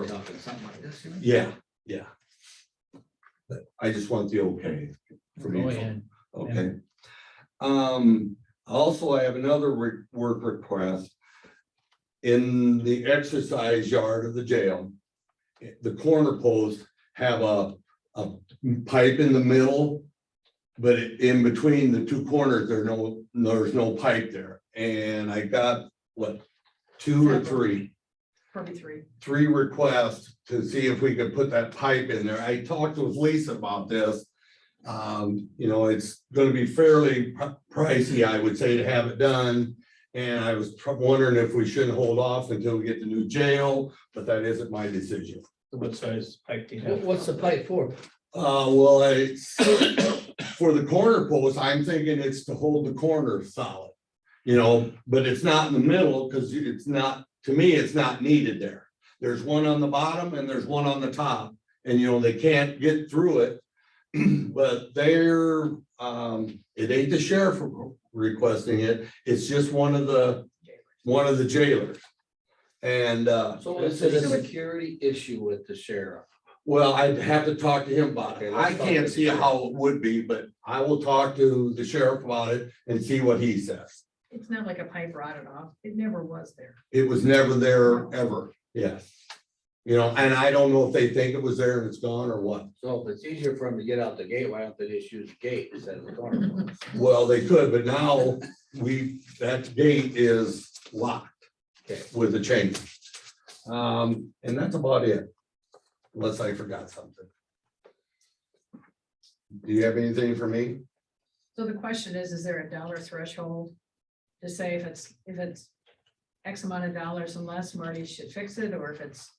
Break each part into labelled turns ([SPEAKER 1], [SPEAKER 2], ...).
[SPEAKER 1] or nothing, something like this, you mean?
[SPEAKER 2] Yeah, yeah. But I just want the okay from
[SPEAKER 1] Oh,
[SPEAKER 2] you,
[SPEAKER 3] Go ahead.
[SPEAKER 2] okay? Um, also, I have another re- work request. In the exercise yard of the jail, i- the corner posts have a, a pipe in the middle. But i- in between the two corners, there are no, there's no pipe there, and I got, what, two or three?
[SPEAKER 4] Probably three.
[SPEAKER 2] three requests to see if we could put that pipe in there. I talked with Lisa about this. Um, you know, it's gonna be fairly pr- pricey, I would say, to have it done. And I was tr- wondering if we shouldn't hold off until we get the new jail, but that isn't my decision.
[SPEAKER 5] What size pipe do you
[SPEAKER 3] What-
[SPEAKER 5] have?
[SPEAKER 3] What's the pipe for?
[SPEAKER 2] Uh, well, I, for the corner post, I'm thinking it's to hold the corner solid. You know, but it's not in the middle, cause it's not, to me, it's not needed there. There's one on the bottom and there's one on the top, and you know, they can't get through it. But they're, um, it ain't the sheriff requesting it, it's just one of the, one of the jailers. And, uh,
[SPEAKER 1] So is it a security issue with the sheriff?
[SPEAKER 2] well, I'd have to talk to him about
[SPEAKER 1] Okay,
[SPEAKER 2] it.
[SPEAKER 1] let's
[SPEAKER 2] I
[SPEAKER 1] talk
[SPEAKER 2] can't
[SPEAKER 1] to the
[SPEAKER 2] see
[SPEAKER 1] sheriff.
[SPEAKER 2] how it would be, but I will talk to the sheriff about it and see what he says.
[SPEAKER 4] It's not like a pipe rotted off. It never was there.
[SPEAKER 2] It was never there ever, yes. You know, and I don't know if they think it was there and it's gone or what.
[SPEAKER 1] So if it's easier for him to get out the gate, why don't they just use the gate instead of the corner? one?
[SPEAKER 2] Well, they could, but now we, that gate is locked
[SPEAKER 1] Okay.
[SPEAKER 2] with a chain. Um, and that's about it. Unless I forgot something. Do you have anything for me?
[SPEAKER 4] So the question is, is there a dollar threshold to say if it's, if it's X amount of dollars and less, Marty should fix it, or if it's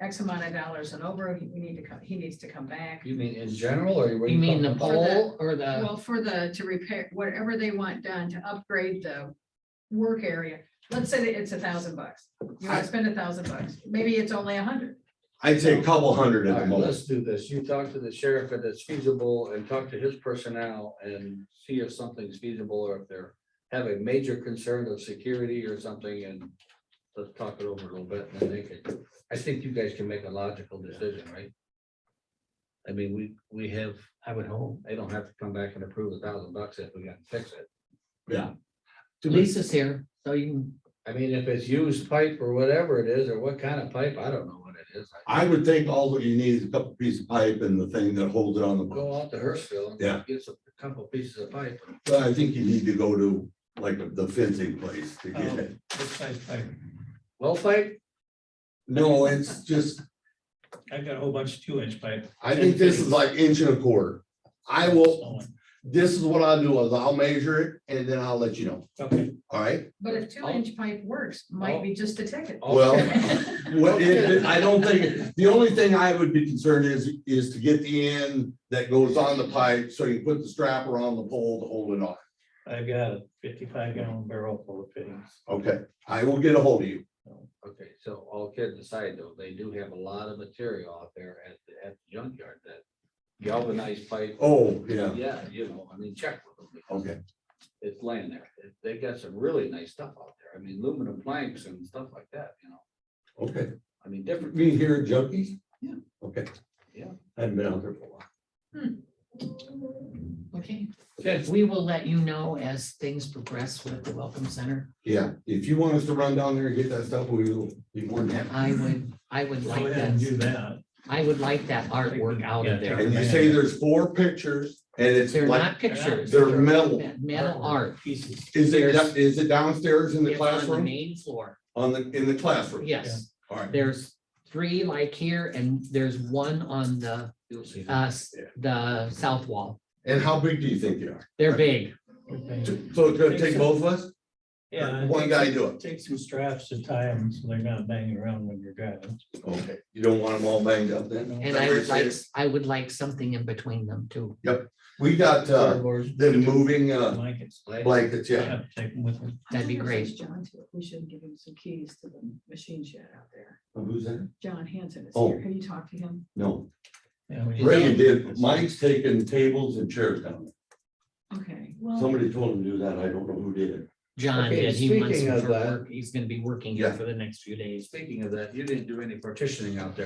[SPEAKER 4] X amount of dollars and over, he- we need to come, he needs to come back.
[SPEAKER 1] You mean in general or? what are
[SPEAKER 3] You mean the
[SPEAKER 1] talking about?
[SPEAKER 4] For the-
[SPEAKER 3] pole or the,
[SPEAKER 4] Well, for the, to repair, whatever they want done to upgrade the work area, let's say that it's a thousand bucks. You want to spend a thousand bucks, maybe it's only a hundred.
[SPEAKER 2] I'd say a couple hundred
[SPEAKER 1] All
[SPEAKER 2] at the
[SPEAKER 1] right,
[SPEAKER 2] most.
[SPEAKER 1] let's do this. You talk to the sheriff if it's feasible and talk to his personnel and see if something's feasible or if they're have a major concern of security or something and let's talk it over a little bit and then they could, I think you guys can make a logical decision, right? I mean, we, we have,
[SPEAKER 3] I would hope.
[SPEAKER 1] they don't have to come back and approve a thousand bucks if we can fix it.
[SPEAKER 2] To me-
[SPEAKER 3] Lisa's here, so you can,
[SPEAKER 1] I mean, if it's used pipe or whatever it is, or what kind of pipe, I don't know what it is.
[SPEAKER 2] I would think all that you need is a couple pieces of pipe and the thing that holds it on the boat.
[SPEAKER 1] Go out to Hurstville. and
[SPEAKER 2] Yeah.
[SPEAKER 1] Get some, a couple pieces of pipe.
[SPEAKER 2] But I think you need to go to like the fencing place to get it.
[SPEAKER 5] What size pipe?
[SPEAKER 1] Well, pipe,
[SPEAKER 2] No, it's just,
[SPEAKER 5] I've got a whole bunch of two inch pipe.
[SPEAKER 2] I think this is like inch and a quarter. I will, this is what I'll do is I'll measure it and then I'll let you know.
[SPEAKER 5] Okay,
[SPEAKER 2] All right?
[SPEAKER 4] But if two inch pipe works, might be just a ticket.
[SPEAKER 2] Well,
[SPEAKER 4] Well,
[SPEAKER 2] Well, it- I don't think, the only thing I would be concerned is, is to get the end that goes on the pipe. So you put the strap around the pole to hold it on.
[SPEAKER 5] I've got a fifty-five gallon barrel full of fittings.
[SPEAKER 2] Okay, I will get a hold of you.
[SPEAKER 1] okay, so all kidding aside though, they do have a lot of material out there at, the- at the junkyard that galvanized pipe.
[SPEAKER 2] Oh, yeah,
[SPEAKER 1] Yeah, you know, I mean, check with them. because
[SPEAKER 2] okay.
[SPEAKER 1] It's laying there. They got some really nice stuff out there. I mean, aluminum planks and stuff like that, you know,
[SPEAKER 2] Okay.
[SPEAKER 1] I mean, different.
[SPEAKER 2] Mean here at Junkies?
[SPEAKER 1] Yeah.
[SPEAKER 2] Okay.
[SPEAKER 1] Yeah.
[SPEAKER 2] I haven't been out there for a while.
[SPEAKER 3] okay.
[SPEAKER 1] Okay.
[SPEAKER 3] We will let you know as things progress with the Welcome Center.
[SPEAKER 2] Yeah, if you want us to run down there and get that stuff, we will be more than happy.
[SPEAKER 3] I would, I would
[SPEAKER 5] Go
[SPEAKER 3] like
[SPEAKER 5] ahead and do
[SPEAKER 3] that.
[SPEAKER 5] that.
[SPEAKER 3] I would like that artwork out
[SPEAKER 5] Yeah,
[SPEAKER 3] of there.
[SPEAKER 2] And you say there's four pictures and it's
[SPEAKER 3] They're
[SPEAKER 2] like,
[SPEAKER 3] not pictures.
[SPEAKER 2] they're metal.
[SPEAKER 3] Metal art.
[SPEAKER 5] Pieces.
[SPEAKER 2] is it, da- is it downstairs in the
[SPEAKER 3] It's on the
[SPEAKER 2] classroom?
[SPEAKER 3] main floor.
[SPEAKER 2] On the, in the classroom?
[SPEAKER 3] Yes,
[SPEAKER 2] All right,
[SPEAKER 3] there's three like here and there's one on the,
[SPEAKER 1] You'll see.
[SPEAKER 3] uh, s-
[SPEAKER 2] Yeah.
[SPEAKER 3] the south wall.
[SPEAKER 2] and how big do you think they are?
[SPEAKER 3] They're big.
[SPEAKER 2] So it's gonna take both of us?
[SPEAKER 5] Yeah.
[SPEAKER 2] One guy do it.
[SPEAKER 5] Take some straps to tie them so they're not banging around when you're driving.
[SPEAKER 2] Okay, you don't want them all banged up then?
[SPEAKER 3] And I would like, I would like something in between them too.
[SPEAKER 2] We got, uh,
[SPEAKER 1] Cardboard,
[SPEAKER 2] the moving, uh,
[SPEAKER 5] Blankets.
[SPEAKER 1] like-
[SPEAKER 2] blankets,
[SPEAKER 5] I
[SPEAKER 2] yeah.
[SPEAKER 5] have to take them with me.
[SPEAKER 3] That'd be
[SPEAKER 4] I wonder if
[SPEAKER 3] great.
[SPEAKER 4] there's John, too. we should give him some keys to the machine shed out there.
[SPEAKER 2] Who's that?
[SPEAKER 4] John Hanson is
[SPEAKER 2] Oh.
[SPEAKER 4] here. Have you talked to him?
[SPEAKER 2] No,
[SPEAKER 5] Yeah, we-
[SPEAKER 2] Reagan did, Mike's taking tables and chairs down there.
[SPEAKER 4] Okay, well,
[SPEAKER 2] Somebody told him to do that. I don't know who did it.
[SPEAKER 3] John
[SPEAKER 1] Okay,
[SPEAKER 3] did, he wants
[SPEAKER 1] speaking
[SPEAKER 3] him
[SPEAKER 1] of
[SPEAKER 3] for
[SPEAKER 1] that-
[SPEAKER 3] work. He's gonna be working here
[SPEAKER 2] Yeah.
[SPEAKER 3] for the next few days.
[SPEAKER 1] Speaking of that, you didn't do any partitioning out there.